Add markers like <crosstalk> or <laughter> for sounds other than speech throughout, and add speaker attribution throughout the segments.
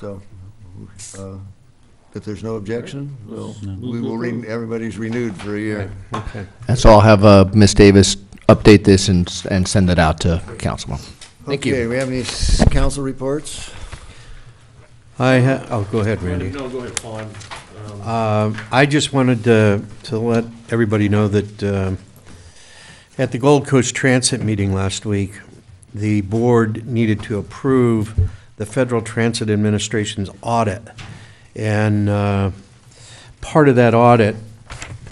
Speaker 1: So uh, if there's no objection, we'll-
Speaker 2: No.
Speaker 1: we will, re- everybody's renewed for a year.
Speaker 3: Okay.
Speaker 4: That's all. Have uh, Ms. Davis update this and, s- and send it out to council. Thank you.
Speaker 1: Okay, we have any s- council reports?
Speaker 3: I, ha- oh, go ahead, Randy.
Speaker 2: No, go ahead, Paul. I'm-
Speaker 3: Um, I just wanted to, to let everybody know that um, at the Gold Coast Transit meeting last week, the board needed to approve the Federal Transit Administration's audit. And uh, part of that audit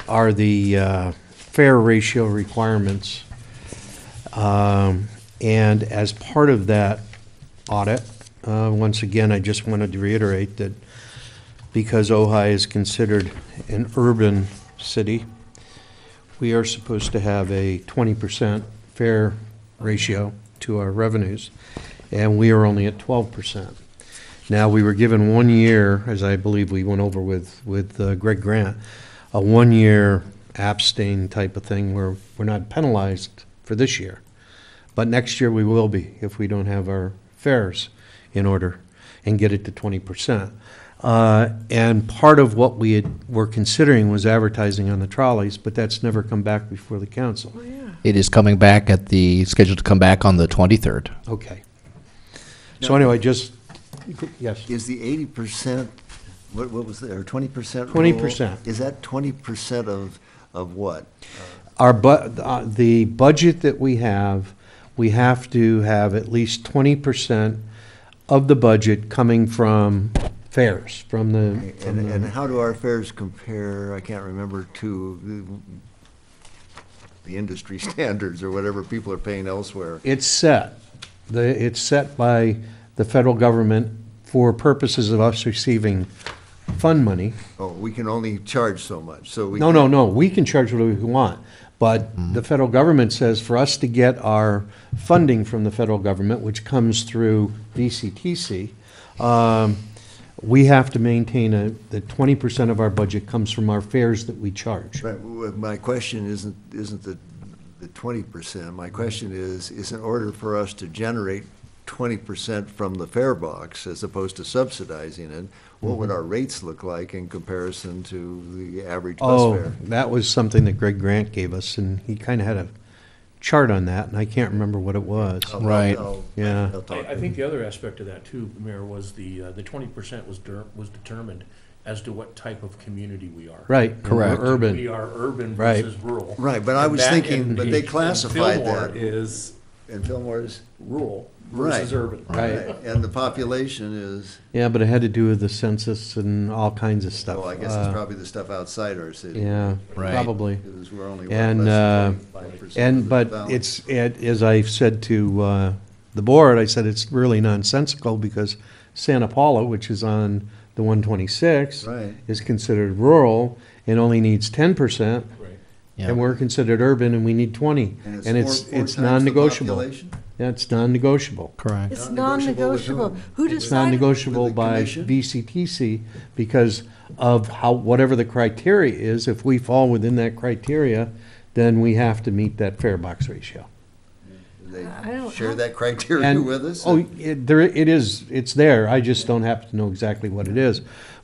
Speaker 3: are the uh, fare ratio requirements. Um, And as part of that audit, uh, once again, I just wanted to reiterate that because Ojai is considered an urban city, we are supposed to have a 20% fair ratio to our revenues, and we are only at 12%. Now, we were given one year, as I believe we went over with, with uh, Greg Grant, a one-year abstain type of thing where we're not penalized for this year. But next year, we will be if we don't have our fares in order and get it to 20%. Uh, And part of what we had- were considering was advertising on the trolleys, but that's never come back before the council.
Speaker 4: It is coming back at the, scheduled to come back on the 23rd.
Speaker 3: Okay. So anyway, just, yes.
Speaker 1: Is the eighty percent, what, what was there, twenty percent?
Speaker 3: 20%.
Speaker 1: Is that twenty percent of, of what?
Speaker 3: Our bu, uh, the budget that we have, we have to have at least twenty percent of the budget coming from fares, from the,
Speaker 1: And,
Speaker 3: from
Speaker 1: and
Speaker 3: the,
Speaker 1: how do our fares compare, I can't remember, to the, the industry <laughs> standards or whatever people are paying elsewhere?
Speaker 3: it's set. The, it's set by the federal government for purposes of us receiving fund money.
Speaker 1: Oh, we can only charge so much, so we. Mm-hmm.
Speaker 3: No, no, no, we can charge whatever we want, but the federal government says for us to get our funding from the federal government, which comes through VCTC, um, we have to maintain a, that twenty percent of our budget comes from our fares that we charge.
Speaker 1: Right, well, my question isn't, isn't the, the twenty percent, my question is, is in order for us to generate twenty percent from the fare box as opposed to subsidizing it, what
Speaker 3: Mm-hmm.
Speaker 1: would our rates look like in comparison to the average bus
Speaker 3: Oh,
Speaker 1: fare?
Speaker 3: <laughs> that was something that Greg Grant gave us, and he kinda had a chart on that, and I can't remember what it was.
Speaker 1: I'll-
Speaker 4: Right.
Speaker 1: I'll-
Speaker 3: Yeah.
Speaker 1: I'll talk
Speaker 2: I, I
Speaker 1: to
Speaker 2: think the other aspect of that too, Mayor, was the, uh, the twenty percent was der, was determined as to what type of community we are.
Speaker 3: Right. and we're
Speaker 4: Correct.
Speaker 2: We
Speaker 3: Urban,
Speaker 2: are urban
Speaker 3: Right.
Speaker 2: versus rural.
Speaker 1: Right, but I
Speaker 2: And
Speaker 1: was
Speaker 2: that-
Speaker 1: thinking-
Speaker 2: and-
Speaker 1: but they
Speaker 2: and
Speaker 1: classified
Speaker 2: Fillmore
Speaker 1: that.
Speaker 2: Is
Speaker 1: you. And Fillmore's,
Speaker 2: rural
Speaker 1: Right.
Speaker 2: versus urban.
Speaker 3: right,
Speaker 1: and the population is,
Speaker 3: yeah, but it had to do with the census and all kinds of stuff.
Speaker 1: well, I guess it's
Speaker 3: Uh,
Speaker 1: probably the stuff outside our city.
Speaker 3: Yeah,
Speaker 4: Right.
Speaker 3: probably.
Speaker 1: Because we're only. what,
Speaker 3: And,
Speaker 1: less
Speaker 3: uh,
Speaker 1: than 25% of
Speaker 3: And,
Speaker 1: the
Speaker 3: but
Speaker 1: balance.
Speaker 3: it's, it- as I said to uh, the board, I said it's really nonsensical because Santa Paula, which is on the 126,
Speaker 1: Right.
Speaker 3: is considered rural and only needs 10%,
Speaker 2: Right.
Speaker 4: Yeah.
Speaker 3: and we're considered urban and we need 20. And
Speaker 1: four-
Speaker 3: it's,
Speaker 1: four times
Speaker 3: it's
Speaker 1: the
Speaker 3: non-negotiable.
Speaker 1: population?
Speaker 3: Yeah, it's non-negotiable.
Speaker 4: Correct.
Speaker 5: It's
Speaker 1: Non-negotiable with whom?
Speaker 5: non-negotiable. Who
Speaker 3: It's
Speaker 5: decided?
Speaker 3: non-negotiable
Speaker 1: With the
Speaker 3: by
Speaker 1: commission?
Speaker 3: VCTC because of how, whatever the criteria is, if we fall within that criteria, then we have to meet that fare box ratio.
Speaker 1: Do They
Speaker 5: I don't-
Speaker 1: share that criteria
Speaker 3: And-
Speaker 1: with us?
Speaker 3: Oh, it, there, it is, it's there, I just don't happen to know exactly what it is.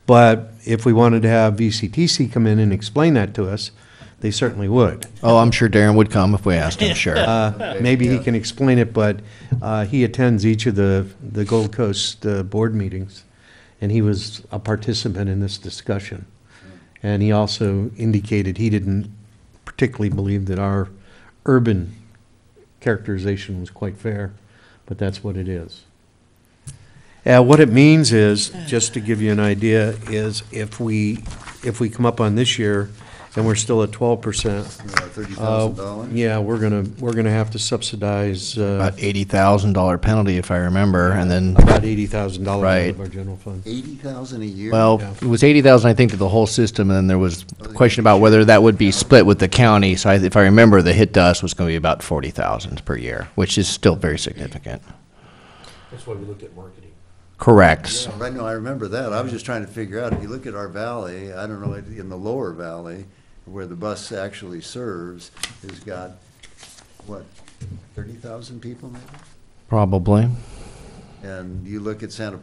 Speaker 3: But if we wanted to have VCTC come in and explain that to us, they certainly would.
Speaker 4: Oh, I'm sure Darren would come if we asked him, sure.
Speaker 3: Uh, Maybe he can explain it, but, uh, he attends each of the, the Gold Coast, uh, board meetings, and he was a participant in this discussion. And he also indicated he didn't particularly believe that our urban characterization was quite fair, but that's what it is. Uh, what it means is, just to give you an idea, is if we, if we come up on this year and we're still at twelve percent,
Speaker 1: Thirty
Speaker 3: uh,
Speaker 1: thousand dollars?
Speaker 3: Yeah, we're gonna, we're gonna have to subsidize uh,
Speaker 4: About $80,000 penalty, if I remember, and then,
Speaker 3: about eighty thousand dollars out
Speaker 4: Right.
Speaker 3: of our general fund.
Speaker 1: Eity thousand a year?
Speaker 4: well, it was 80,000, I think, to the whole system, and then there was a question about whether that would be split with the county. So I- if I remember, the hit to us was going to be about 40,000 per year, which is still very significant.
Speaker 2: That's why we looked at marketing.
Speaker 4: Correct.
Speaker 1: Yeah, Right, no, I remember that. I was just trying to figure out, if you look at our valley, I don't know, in the lower valley, where the bus actually serves, has got, what, thirty thousand people maybe?
Speaker 4: Probably.
Speaker 1: And you look at Santa